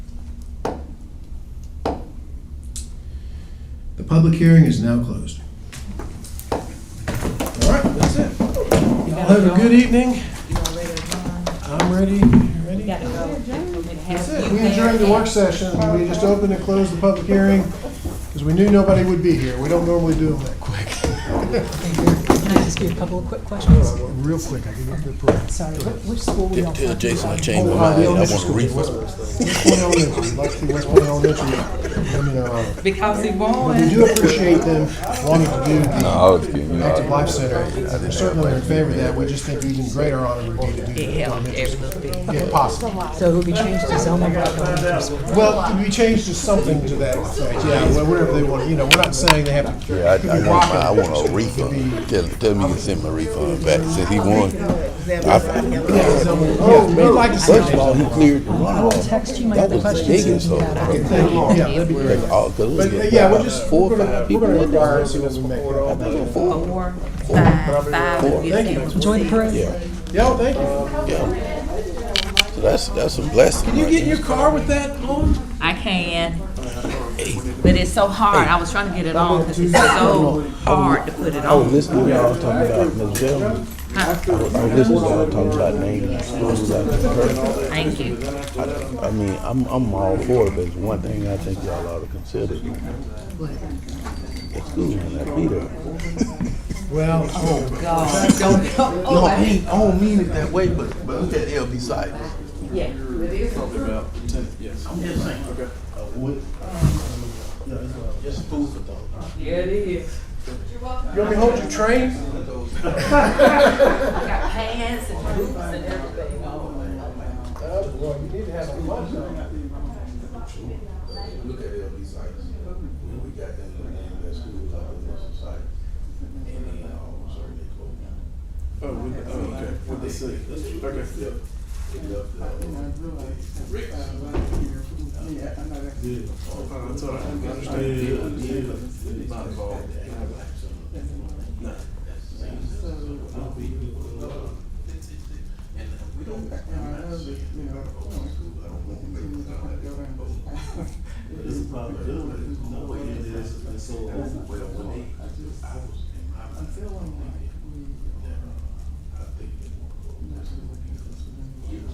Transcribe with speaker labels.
Speaker 1: Public hearing is now closed. All right, that's it. Y'all have a good evening. I'm ready, you ready? That's it. We adjourned the work session, we just opened and closed the public hearing, because we knew nobody would be here. We don't normally do them that quick.
Speaker 2: Can I ask you a couple of quick questions?
Speaker 1: Real quick, I can get the program.
Speaker 2: Sorry, what, which school were you on?
Speaker 3: Tell Jason I changed my
Speaker 1: Oh,
Speaker 3: mind. I
Speaker 1: the
Speaker 3: want
Speaker 1: elementary
Speaker 3: a
Speaker 1: school, West
Speaker 3: refund.
Speaker 1: West Point Elementary, Lexi West Point Elementary, let me know.
Speaker 4: Because he won.
Speaker 1: We do appreciate them wanting to do the
Speaker 5: I was kidding. You know,
Speaker 1: Active
Speaker 5: I-
Speaker 1: Life Center, We're certainly in favor of that, we just think even greater honor would be to do that. elementary school. Yeah, possible.
Speaker 2: So it'll be changed to Zelma Rock Elementary School.
Speaker 1: Well, we changed to something to that effect, yeah, well, whatever they want, you know, we're not saying they have to.
Speaker 5: I, I, want my, I want a refund. Tell, tell me you can send my refund back since he won. I,
Speaker 1: Oh, we'd like to see
Speaker 5: first of
Speaker 1: that.
Speaker 5: all, he cleared the runoff.
Speaker 2: Text you my
Speaker 5: That
Speaker 2: other
Speaker 5: was the
Speaker 2: questions.
Speaker 5: biggest of
Speaker 1: Yeah, that'd be great. But, uh, yeah, we're just,
Speaker 5: four
Speaker 1: we're
Speaker 5: or
Speaker 1: gonna,
Speaker 5: five
Speaker 1: we're
Speaker 5: people.
Speaker 1: gonna
Speaker 5: in there.
Speaker 1: require, it, see what we make. it.
Speaker 4: Four, five, five.
Speaker 5: Four.
Speaker 4: if you
Speaker 1: Thank you.
Speaker 4: can.
Speaker 2: Enjoy the parade.
Speaker 5: Yeah,
Speaker 1: Yo, thank you.
Speaker 5: yeah. So that's that's a blessing.
Speaker 1: Can you
Speaker 5: right
Speaker 1: get in your
Speaker 5: there.
Speaker 1: car with that on?
Speaker 4: I can. But it's so hard. I was trying to get it on because it's so hard to put it
Speaker 5: I was
Speaker 4: on.
Speaker 5: listening to y'all talking about Ms. Bellman. I was I was listening to y'all talking about names, schools out of the
Speaker 4: Thank you.
Speaker 5: curtain. I mean, I'm, I'm all for it, but it's one thing I think y'all ought to consider. The school in that Peter.
Speaker 1: Well,
Speaker 4: God, don't go.
Speaker 5: No, I ain't, I don't mean it that way, but, but look at LB Sykes.
Speaker 4: Yeah.
Speaker 5: I'm just saying. Uh, Okay. Um, Just food for thought.
Speaker 1: you want me to hold your train?
Speaker 4: Got pants and boots and everything.
Speaker 1: Uh, Well, you need to have a lunch. though.
Speaker 5: Look at LB Sykes. When we got them, to name that school out of Mr. Sykes. And then, uh, sorry, they called me.
Speaker 6: Oh, we, oh, okay. What they say? Okay.
Speaker 5: uh,
Speaker 6: Oh, that's all right. I understand. Not involved.
Speaker 5: I